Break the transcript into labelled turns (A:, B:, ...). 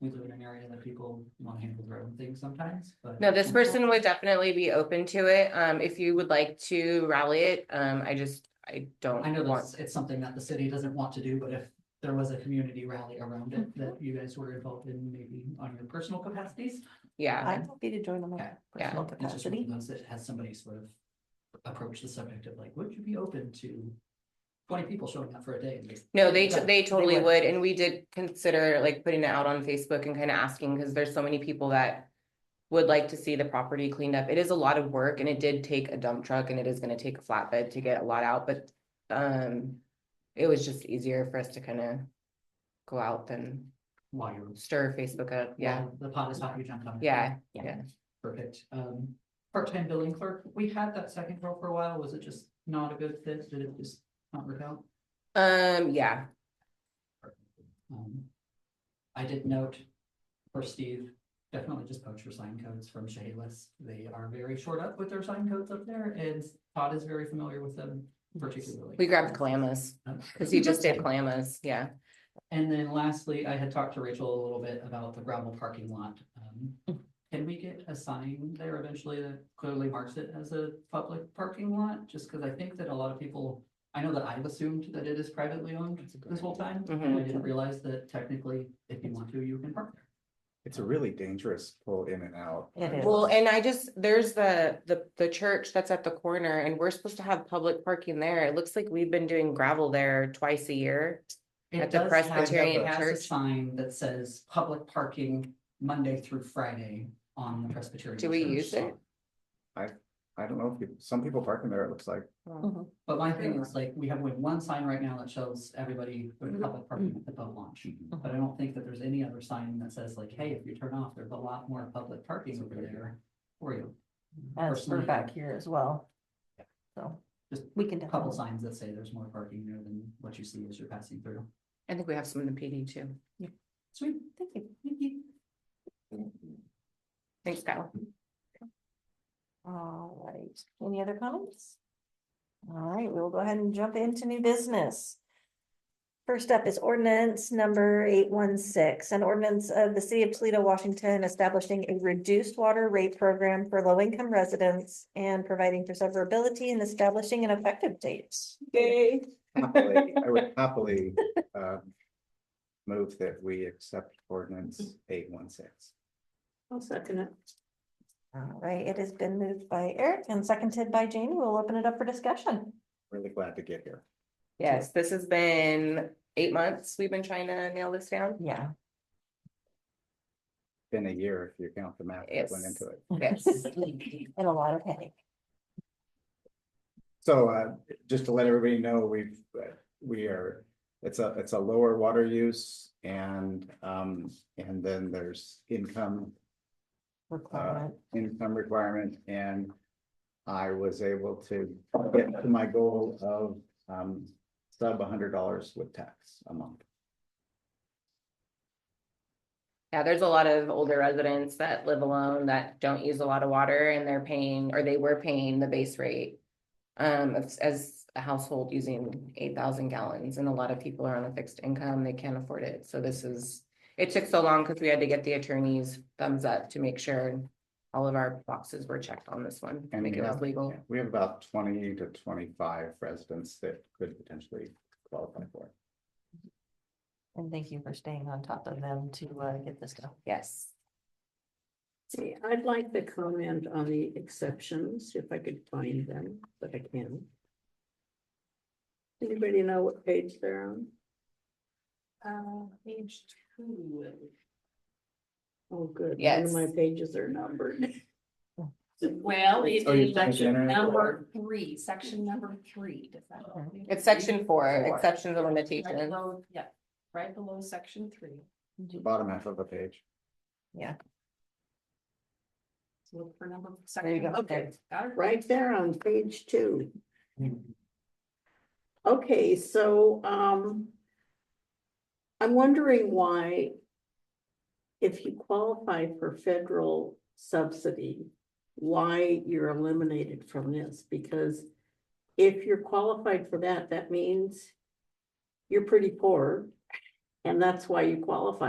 A: we live in an area that people want to handle their own things sometimes, but.
B: No, this person would definitely be open to it. Um, if you would like to rally it, um, I just, I don't
A: I know
B: want.
A: that's, it's something that the city doesn't want to do, but if there was a community rally around it that
B: Mm-hmm.
A: you guys were involved in, maybe on your personal capacities.
B: Yeah,
C: I'm happy to join on
A: Okay.
C: my
B: Yeah.
C: personal
A: It's just one of
C: capacity.
A: those that has somebody sort of approach the subject of like, would you be open to twenty people showing up for a day? and just-
B: no, they,
A: Yeah,
B: they totally
A: would.
B: would. And we did consider like putting it out on Facebook and kind of asking, because there's so many people that would like to see the property cleaned up. It is a lot of work and it did take a dump truck and it is gonna take a flatbed to get a lot out, but um, it was just easier for us to kind of go out than
A: While you're.
B: stir Facebook up. Yeah,
A: while The pot is hot, you jump on it.
B: yeah.
A: Perfect. Um, part-time billing clerk, we had that second role for a while. Was it just not a good fit? Did it just not work out?
B: Um, yeah,
A: Um, I did note for Steve, definitely just poach your sign codes from Shayless. They are very short up with their sign codes up there and Todd is very familiar with them particularly. Um,
B: we grabbed Clamas. Cause he just did Clamas, yeah.
A: And then lastly, I had talked to Rachel a little bit about the gravel parking lot. Um, Can we get a sign there eventually that clearly marks it as a public parking lot? Just because I think that a lot of people, I know that I've assumed that it is privately owned
D: That's a good
A: this whole time. And I
B: Mhm.
A: didn't realize that technically, if you want to, you can park there.
D: It's a really dangerous pull in and out.
C: It is.
B: Well, and I just, there's the, the, the church that's at the corner and we're supposed to have public parking there. It looks like we've been doing gravel there twice a year.
A: It
B: At the
A: does have-
B: Presbyterian
A: it has a
B: Church.
A: Sign that says public parking Monday through Friday on the Presbyterian.
B: Do we
A: Church
B: use it?
A: sign.
D: I don't know if people, some people park in there, it looks like.
A: But my thing is like, we have only one sign right now that shows everybody go to public parking at the boat launch. But I don't think that there's any other sign that says like, hey, if you turn off, there's a lot more public parking over there for you.
C: As for
A: Personally,
C: back here as well.
A: Yeah.
C: So
A: Just
C: we can
A: a Couple
C: definitely.
A: signs that say there's more parking there than what you see as you're passing through.
B: I think we have some in the PD too.
A: Sweet.
C: Thank you.
B: Thanks, Kyle.
C: All right, any other comments? All right, we'll go ahead and jump into new business. First up is ordinance number eight one six, an ordinance of the city of Toledo, Washington, establishing a reduced water rate program for low income residents and providing for severability and establishing an effective date. Yay.
D: happily- I would happily um, move that we accept ordinance eight one six.
E: I'll second it.
C: All right, it has been moved by Eric and seconded by Jamie. We'll open it up for discussion.
D: Really glad to get here.
B: Yes, this has been eight months. We've been trying to nail this down.
C: Yeah.
D: Been a year if you count the math that went into
B: Yes.
D: it.
B: Yes.
C: And a lot of headache.
D: So uh, just to let everybody know, we've, uh, we are, it's a, it's a lower water use and um, and then there's income
C: requirement.
D: income requirement and I was able to get to my goal of um sub hundred dollars with tax a month.
B: Yeah, there's a lot of older residents that live alone that don't use a lot of water and they're paying, or they were paying the base rate. Um, as, as a household using eight thousand gallons and a lot of people are on a fixed income, they can't afford it. So this is, it took so long because we had to get the attorney's thumbs up to make sure all of our boxes were checked on this one,
D: And
B: make
D: we
B: it was
D: have-
B: legal.
D: We have about twenty to twenty-five residents that could potentially qualify for it.
C: And thank you for staying on top of them to uh, get this done.
B: Yes.
E: See, I'd like to comment on the exceptions, if I could find them, but I can't. Anybody know what page they're on?
A: Uh, page two.
E: Oh, good. None
B: Yes.
E: of my pages are numbered.
F: Well, it's
D: Oh, you changed
F: in
D: the
F: section
D: internet?
F: number three, section number three. does that help you?
B: It's section four, exceptions and
F: Right
B: limitations.
F: below- Yeah, right below section three.
D: The Bottom half of the page.
F: Look for number section.
C: go.
F: Okay, got it right.
E: Right there on page two. Okay, so, um. I'm wondering why. If you qualify for federal subsidy, why you're eliminated from this, because. If you're qualified for that, that means. You're pretty poor. And that's why you qualify